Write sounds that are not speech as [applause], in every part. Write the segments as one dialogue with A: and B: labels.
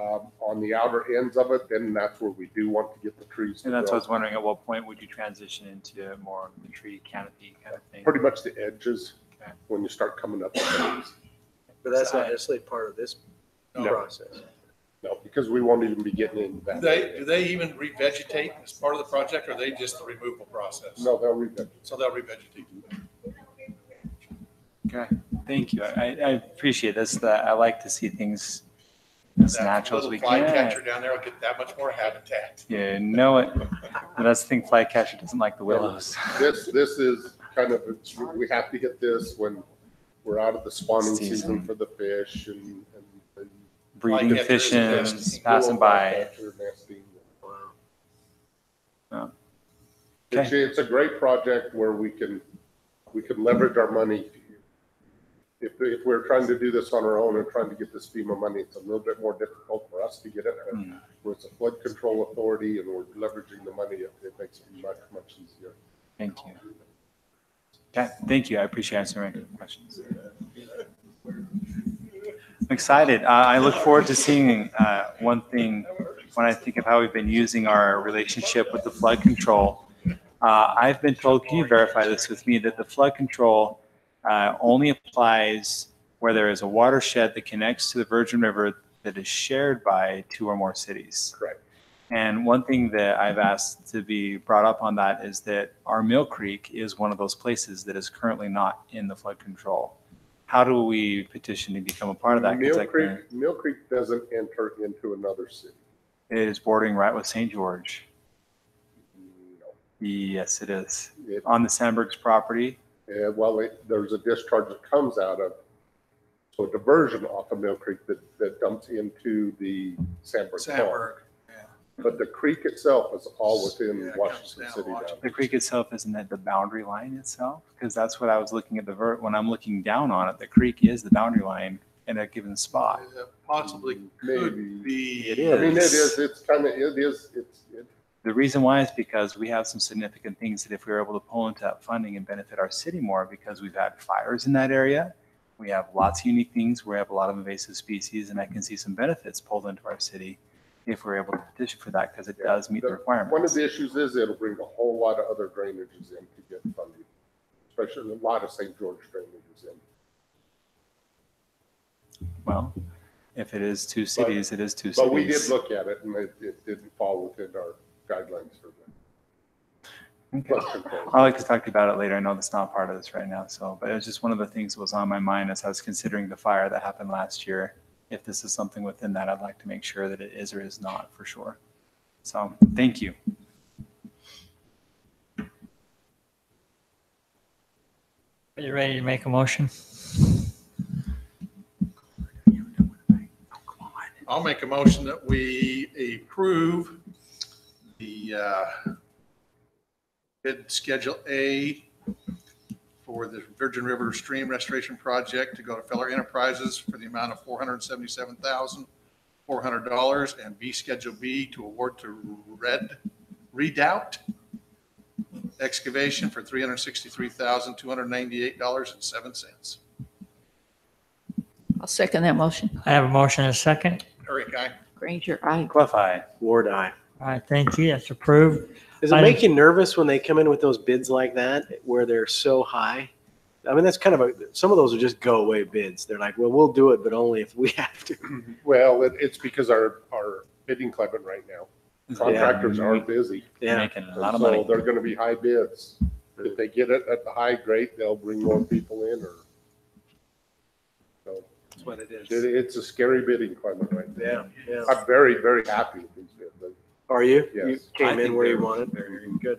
A: um, on the outer ends of it, then that's where we do want to get the trees to
B: And that's what
A: grow.
B: I was wondering, at what point would you transition into more of the tree canopy kind of thing?
A: Pretty much the edges,
B: Okay.
A: when you start coming up. with those.
C: But that's not necessarily part of this
A: No.
C: process.
A: No, because we won't even be getting into
D: Do
A: that.
D: They, do they even revegetate as part of the project, or are they just the removal process?
A: No, they'll revegetate.
D: So they'll revegetate.
B: Okay, thank you. I, I appreciate this. That I like to see things as
D: That
B: natural as we
D: Little
B: can.
D: flycatcher down there will get that much more habitat.
B: You know it. But that's the thing, flycatcher doesn't like the willows.
A: This, this is kind of, it's- we have to get this when we're out of the spawning season
B: Season.
A: for the fish and. and- and
B: Breeding
D: Flycatcher is
B: fish
D: the best.
B: and passing by.
A: Flycatcher nesting.
C: Wow.
A: It's, it's a great project where we can, we can leverage our money. If, if we're trying to do this on our own and trying to get this FEMA money, it's a little bit more difficult for us to get it. But
B: Mm.
A: where it's a flood control authority and we're leveraging the money, it it makes it much, much easier.
B: Thank you. Okay, thank you. I appreciate answering my questions. I'm excited. Uh, I look forward to seeing uh, one thing when I think of how we've been using our relationship with the flood control. Uh, I've been told, can you verify this with me, that the flood control uh, only applies where there is a watershed that connects to the Virgin River that is shared by two or more cities.
A: Correct.
B: And one thing that I've asked to be brought up on that is that our Mill Creek is one of those places that is currently not in the flood control. How do we petition to become a part of that? 'Cause
A: Mill
B: that-
A: Creek, Mill Creek doesn't enter into another city.
B: It is bordering right with St. George.
A: No.
B: Yes, it is.
A: It-
B: On the Sandbergs property.
A: Yeah, well, it- there's a discharge that comes out of, so a diversion off of Mill Creek that, that dumps into the Sandburg Pond.
D: Sandberg,
A: But the creek itself is all within
D: Yeah, it comes
A: Washington
D: down
A: City.
D: Washington.
A: boundary.
B: The creek itself, isn't that the boundary line itself? Because that's what I was looking at the vert, when I'm looking down on it, the creek is the boundary line in a given spot.
D: uh, possibly
A: Maybe.
D: could be.
B: It
A: I mean, it
B: Yes.
A: is, it's kind of, it is, it's, it-
B: The reason why is because we have some significant things that if we were able to pull into that funding and benefit our city more, because we've had fires in that area. We have lots of unique things. We have a lot of invasive species and I can see some benefits pulled into our city if we're able to petition for that because it does meet the requirements.
A: one of the issues is it'll bring a whole lot of other drainages in to get funding, especially a lot of St. George drainages in.
B: Well, if it is two cities, it is two cities.
A: But we did look at it and it, it didn't fall within our guidelines for the
B: Okay.
A: flood control.
B: I'd like to talk to you about it later. I know that's not part of this right now, so, but it was just one of the things that was on my mind as I was considering the fire that happened last year. If this is something within that, I'd like to make sure that it is or is not for sure. So, thank you.
E: Are you ready to make a motion?
D: I'll make a motion that we approve the uh, bid Schedule A for the Virgin River Stream Restoration Project to go to Feller Enterprises for the amount of $477,400 and B Schedule B to award to Red Redoubt Excavation for $363,298.07.
F: I'll second that motion.
E: I have a motion and a second.
D: Eric, aye.
F: Granger, aye.
B: Clef eye.
C: Ward eye.
E: All right, thank you. That's approved.
C: Does it
E: I-
C: make you nervous when they come in with those bids like that, where they're so high? I mean, that's kind of a, some of those are just go away bids. They're like, well, we'll do it, but only if we [laughs] have to.
A: Well, it, it's because our, our bidding climate right now, contractors are busy.
C: Yeah.
B: Making a lot of
A: So
B: money.
A: they're gonna be high bids. If they get it at the high grade, they'll bring more people in or. So
C: That's what it
A: it, it's a scary bidding climate right now.
C: Yeah, yeah.
A: I'm very, very happy with these bids. but
C: Are you? You
A: Yes.
C: came
B: I
C: in
B: think
C: where
B: they
C: you
B: were-
C: wanted. Very Good.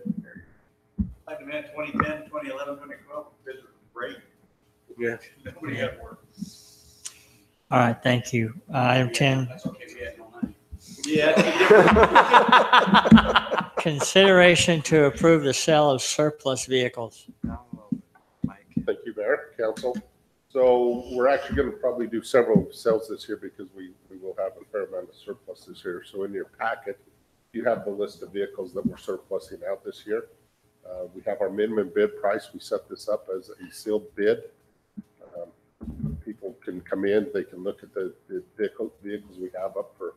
G: I demand 2010, 2011, 2012, bids are great.
C: Yeah.
G: Nobody had work.
E: All right, thank you. Uh, Item 10,
G: That's okay, we had no money.
E: consideration to approve the sale of surplus vehicles.
A: Thank you, Mayor, Council. So we're actually going to probably do several sales this year because we, we will have a fair amount of surplus this year. So in your packet, you have the list of vehicles that we're surplusing out this year. Uh, We have our minimum bid price. We set this up as a sealed bid. Um, People can come in, they can look at the the vehicle- vehicles we have up for